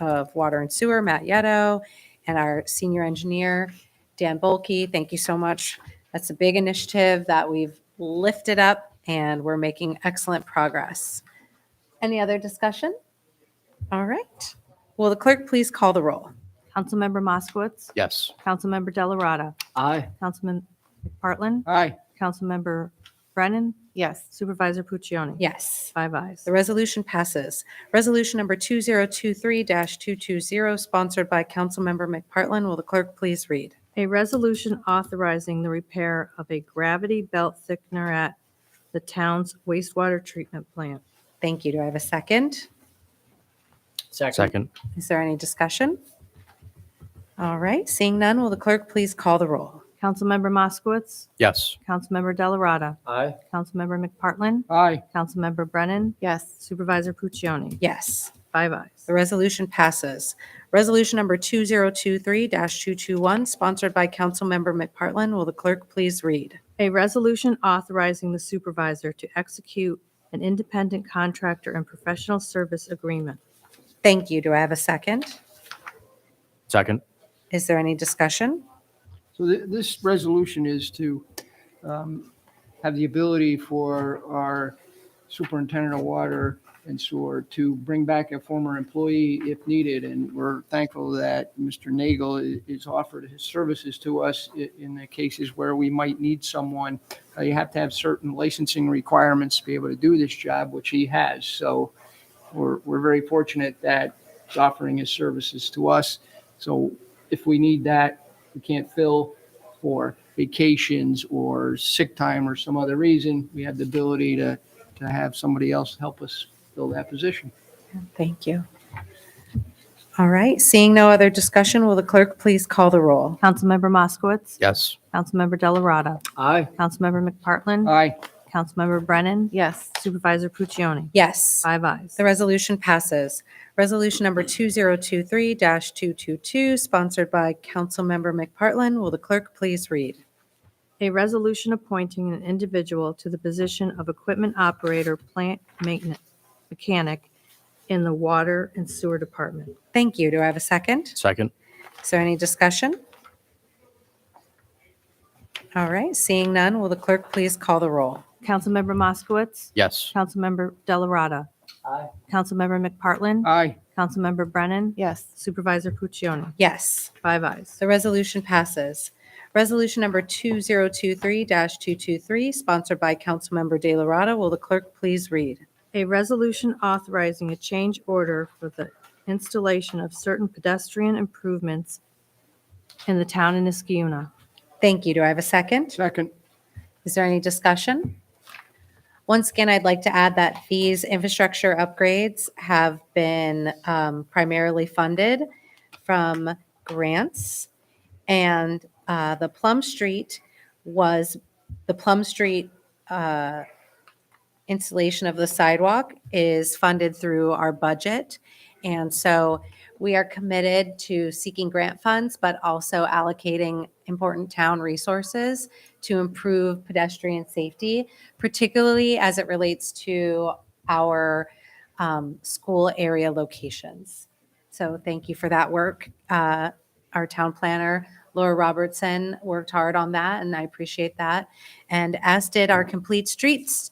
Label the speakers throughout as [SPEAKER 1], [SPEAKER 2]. [SPEAKER 1] of Water and Sewer, Matt Yetto, and our senior engineer, Dan Bulkey. Thank you so much. That's a big initiative that we've lifted up and we're making excellent progress. Any other discussion? All right. Will the clerk please call the roll?
[SPEAKER 2] Councilmember Moskowitz.
[SPEAKER 3] Yes.
[SPEAKER 2] Councilmember Delarada.
[SPEAKER 3] Aye.
[SPEAKER 2] Councilman Partlin.
[SPEAKER 3] Aye.
[SPEAKER 2] Councilmember Brennan. Yes. Supervisor Puccioni.
[SPEAKER 1] Yes.
[SPEAKER 2] Five ayes.
[SPEAKER 1] The resolution passes. Resolution number 2023-220, sponsored by Councilmember McPartlin. Will the clerk please read?
[SPEAKER 2] A resolution authorizing the repair of a gravity belt thickener at the town's wastewater treatment plant.
[SPEAKER 1] Thank you. Do I have a second?
[SPEAKER 3] Second.
[SPEAKER 1] Is there any discussion? All right, seeing none, will the clerk please call the roll?
[SPEAKER 2] Councilmember Moskowitz.
[SPEAKER 3] Yes.
[SPEAKER 2] Councilmember Delarada.
[SPEAKER 3] Aye.
[SPEAKER 2] Councilmember McPartlin.
[SPEAKER 3] Aye.
[SPEAKER 2] Councilmember Brennan. Yes. Supervisor Puccioni.
[SPEAKER 1] Yes,
[SPEAKER 2] Five ayes.
[SPEAKER 1] the resolution passes. Resolution number 2023-221, sponsored by Councilmember McPartlin. Will the clerk please read?
[SPEAKER 2] A resolution authorizing the supervisor to execute an independent contractor and professional service agreement.
[SPEAKER 1] Thank you. Do I have a second?
[SPEAKER 3] Second.
[SPEAKER 1] Is there any discussion?
[SPEAKER 4] So th- this resolution is to um, have the ability for our superintendent of water and sewer to bring back a former employee if needed. And we're thankful that Mr. Nagel i- is offered his services to us i- in the cases where we might need someone. Uh, You have to have certain licensing requirements to be able to do this job, which he has. So we're, we're very fortunate that he's offering his services to us. So if we need that, we can't fill for vacations or sick time or some other reason, we have the ability to, to have somebody else help us fill that position.
[SPEAKER 1] Thank you. All right, seeing no other discussion, will the clerk please call the roll?
[SPEAKER 2] Councilmember Moskowitz.
[SPEAKER 3] Yes.
[SPEAKER 2] Councilmember Delarada.
[SPEAKER 3] Aye.
[SPEAKER 2] Councilmember McPartlin.
[SPEAKER 4] Aye,
[SPEAKER 2] Councilmember Brennan. Yes. Supervisor Puccioni.
[SPEAKER 1] Yes.
[SPEAKER 2] Five ayes.
[SPEAKER 1] The resolution passes. Resolution number 2023-222, sponsored by Councilmember McPartlin. Will the clerk please read?
[SPEAKER 2] A resolution appointing an individual to the position of equipment operator, plant maintenance mechanic in the water and sewer department.
[SPEAKER 1] Thank you. Do I have a second?
[SPEAKER 3] Second.
[SPEAKER 1] Is there any discussion? All right, seeing none, will the clerk please call the roll?
[SPEAKER 2] Councilmember Moskowitz.
[SPEAKER 3] Yes.
[SPEAKER 2] Councilmember Delarada.
[SPEAKER 4] Aye.
[SPEAKER 2] Councilmember McPartlin.
[SPEAKER 4] aye,
[SPEAKER 2] Councilmember Brennan? Yes. Supervisor Puccioni?
[SPEAKER 1] Yes,
[SPEAKER 2] Five ayes.
[SPEAKER 1] the resolution passes. Resolution number 2023-223, sponsored by Councilmember De La Rada. Will the clerk please read?
[SPEAKER 2] A resolution authorizing a change order for the installation of certain pedestrian improvements in the town in Niskiuna.
[SPEAKER 1] Thank you. Do I have a second?
[SPEAKER 4] second,
[SPEAKER 1] Is there any discussion? Once again, I'd like to add that these infrastructure upgrades have been um, primarily funded from grants. And uh, the Plum Street was, the Plum Street uh, installation of the sidewalk is funded through our budget. And so we are committed to seeking grant funds, but also allocating important town resources to improve pedestrian safety, particularly as it relates to our um, school area locations. So thank you for that work. Uh, Our town planner, Laura Robertson, worked hard on that, and I appreciate that. And as did our Complete Streets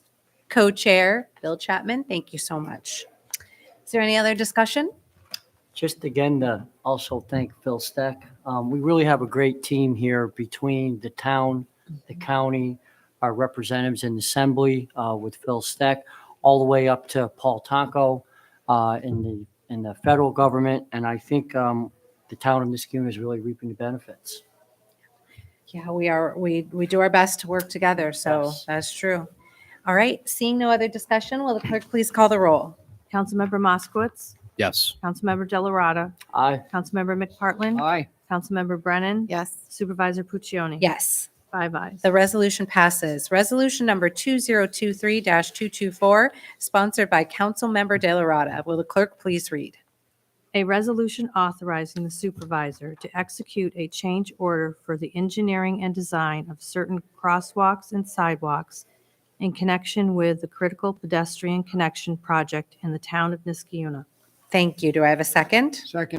[SPEAKER 1] co-chair, Bill Chapman. Thank you so much. Is there any other discussion?
[SPEAKER 5] Just again to also thank Phil Steck. Um, we really have a great team here between the town, the county, our representatives in assembly uh, with Phil Steck, all the way up to Paul Tonko uh, in the in the federal government, and I think um, the town of Niskuna is really reaping the benefits.
[SPEAKER 1] Yeah, we are, we, we do our best to work together, so
[SPEAKER 5] Yes.
[SPEAKER 1] that's true. All right, seeing no other discussion, will the clerk please call the roll?
[SPEAKER 2] Councilmember Moskowitz?
[SPEAKER 3] Yes.
[SPEAKER 2] Councilmember Delarada?
[SPEAKER 5] Aye.
[SPEAKER 2] Councilmember McPartlin?
[SPEAKER 4] aye,
[SPEAKER 2] Councilmember Brennan?
[SPEAKER 1] Yes.
[SPEAKER 2] Supervisor Puccioni?
[SPEAKER 1] Yes,
[SPEAKER 2] Five ayes.
[SPEAKER 1] the resolution passes. Resolution number 2023-224, sponsored by Councilmember De La Rada. Will the clerk please read?
[SPEAKER 2] A resolution authorizing the supervisor to execute a change order for the engineering and design of certain crosswalks and sidewalks in connection with the critical pedestrian connection project in the town of Niskiuna.
[SPEAKER 6] Thank you. Do I have a second?
[SPEAKER 1] Second.